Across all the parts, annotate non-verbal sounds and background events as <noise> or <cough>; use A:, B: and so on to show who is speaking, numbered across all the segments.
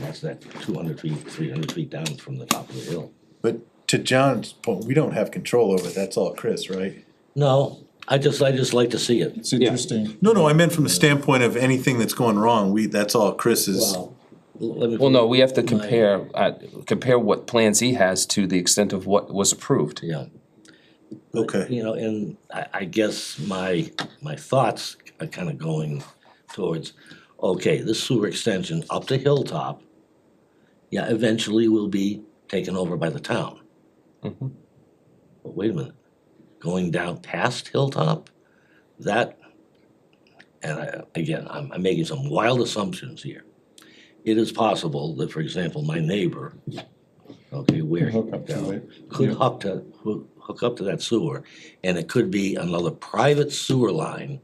A: that's that two hundred feet, three hundred feet down from the top of the hill.
B: But to John's point, we don't have control over it, that's all Chris, right?
A: No, I just, I just like to see it.
C: It's interesting.
B: No, no, I meant from the standpoint of anything that's going wrong, we, that's all Chris's.
A: Well, let me-
D: Well, no, we have to compare, uh, compare what plans he has to the extent of what was approved.
A: Yeah.
B: Okay,
A: You know, and I, I guess my, my thoughts are kind of going towards, okay, this sewer extension up to Hilltop, yeah, eventually will be taken over by the town.
D: Mhm.
A: But wait a minute, going down past Hilltop, that, and I, again, I'm, I'm making some wild assumptions here. It is possible that, for example, my neighbor, okay, where.
C: Hook up to it.
A: could
C: Yeah.
A: hook to, hook hook up to that sewer, and it could be another private sewer line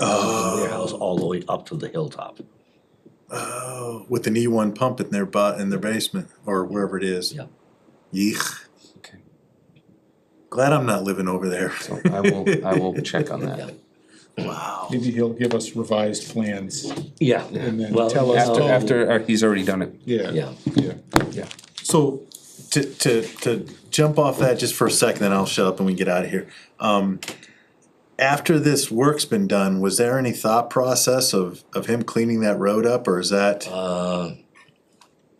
C: Ah.
A: from their house all the way up to the hilltop.
B: oh, with an E one pump in their butt, in their basement, or wherever it is.
A: Yeah.
B: Yeech,
D: Okay.
B: glad I'm not living over there.
D: So I will, I will check
A: <laughs>
D: on
A: Yeah.
D: that.
B: Wow.
C: Maybe he'll give us revised plans
A: Yeah.
C: and then
A: Well,
C: tell us.
D: After,
C: oh,
D: after, uh, he's already done it.
C: Yeah,
A: Yeah,
C: yeah.
B: So to to to jump off that just for a second, then I'll shut up and we can get out of here. Um, after this work's been done, was there any thought process of of him cleaning that road up, or is that
A: uh,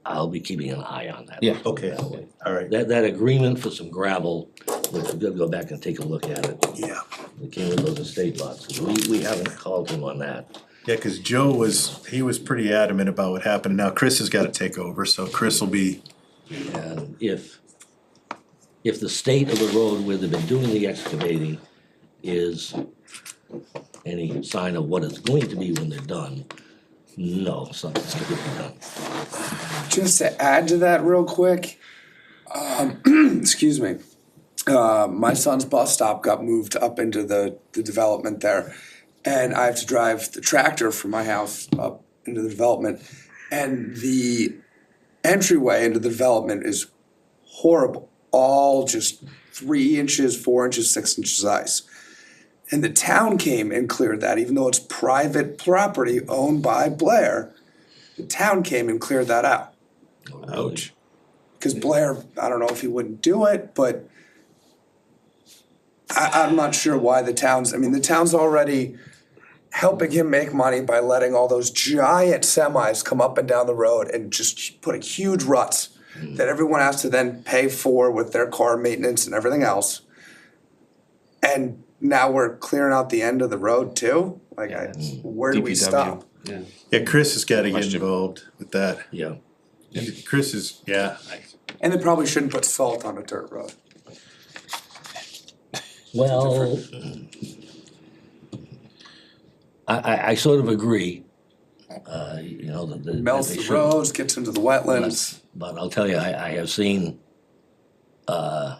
A: I'll be keeping an eye on that.
D: Yeah.
B: okay? All right.
A: That, that agreement for some gravel, we're gonna go back and take a look at it,
B: Yeah,
A: it came with those estate lots, we, we haven't called him on that.
B: yeah. Because Joe was he was pretty adamant about what happened. Now Chris has got to take over, so Chris will be
A: And uh, if, if the state of the road where they've been doing the excavating is any sign of what it's going to be when they're done, no, something's gonna be done.
E: Just to add to that real quick, um, <clears throat> excuse me. Uh, my son's bus stop got moved up into the, the development there. And I have to drive the tractor from my house up into the development. And the entryway into the development is horrible. All just three inches, four inches, six inches ice. And the town came and cleared that, even though it's private property owned by Blair. The town came and cleared that out.
B: ouch.
E: Because Blair, I don't know if he wouldn't do it, but I, I'm not sure why the town's, I mean, the town's already helping him make money by letting all those giant semis come up and down the road and just putting huge ruts
A: Hmm.
E: that everyone has to then pay for with their car maintenance and everything else. And now we're clearing out the end of the road too? Like, I, where do we
D: DPW.
E: stop?
D: Yeah.
B: Yeah, Chris has got to get
D: Question.
B: involved with that.
A: Yeah,
B: Chris is yeah.
E: And they probably shouldn't put salt on a dirt road.
A: well. I, I, I sort of agree, uh, you know, that. that
E: Melts
A: they
E: the
A: shouldn't.
E: roads, gets into the wetlands.
A: But I'll tell you, I, I have seen, uh,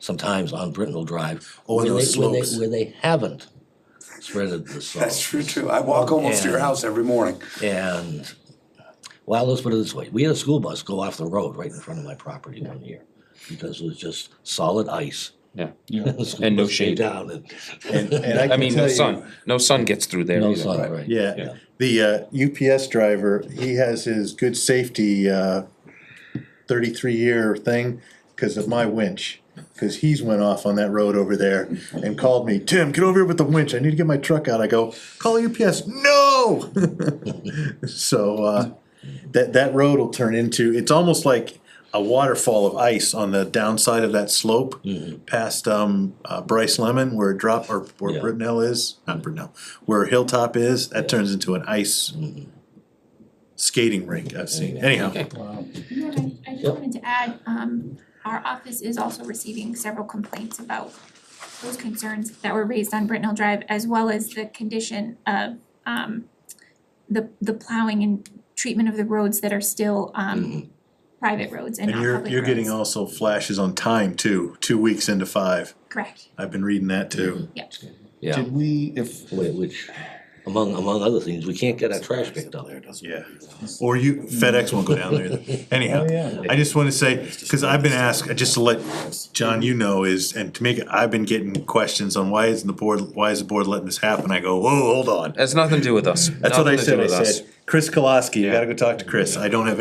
A: sometimes on Brittenell Drive.
B: Oh, and
A: where
B: those
A: they- where they-
B: slopes.
A: Where they haven't spreaded the salt.
E: That's true too. I walk almost to your
A: And-
E: house every morning.
A: And, well, let's put it this way, we had a school bus go off the road right in front of my property one year. Because it was just solid ice.
D: Yeah.
C: Yeah.
A: The school
D: <laughs> And no
A: bus came
D: shade.
A: Down and.
B: And, and I,
D: I
B: can
D: mean,
B: tell
D: no
B: you-
D: sun, no sun gets through there
A: No
D: either.
A: sun, right.
B: Yeah, the uh, UPS driver, he has his good safety uh, thirty-three year thing because of my winch. Because he's went off on that road over there and called me, Tim, get over here with the winch. I need to get my truck out. I go, call UPS. No. so uh, that that road will turn into it's almost like a waterfall of ice on the downside of that slope past um, uh, Bryce Lemon, where it drop or where
A: Yeah.
B: Britnell is, not Britnell, where Hilltop is. That turns into an ice skating rink. I've seen anyhow.
C: Wow.
F: No, I, I just wanted to add, um, our office is also receiving several complaints about those concerns that were raised on Brittenell Drive, as well as the condition of, um, the, the plowing and treatment of the roads that are still, um, private roads and
B: And
F: not
B: you're
F: public
B: you're getting
F: roads.
B: also flashes on time too. Two weeks into five,
F: Correct,
B: I've been reading that too.
F: yep.
A: Yeah,
C: Did we, if,
A: whi- which, among, among other things, we can't get our trash picked up.
B: Yeah, <laughs> or you FedEx won't go down there.
C: <laughs>
B: either. Anyhow,
C: Oh, yeah.
B: I just want to say because I've been asked just to let John you know is and to make I've been getting questions on why isn't the board why is the board letting this happen? I go whoa hold on.
D: Has nothing to do with us.
B: That's what I
D: Nothing to do
B: said. I
D: with us.
B: said Chris Kolaski. You got to go talk to Chris. I don't have any.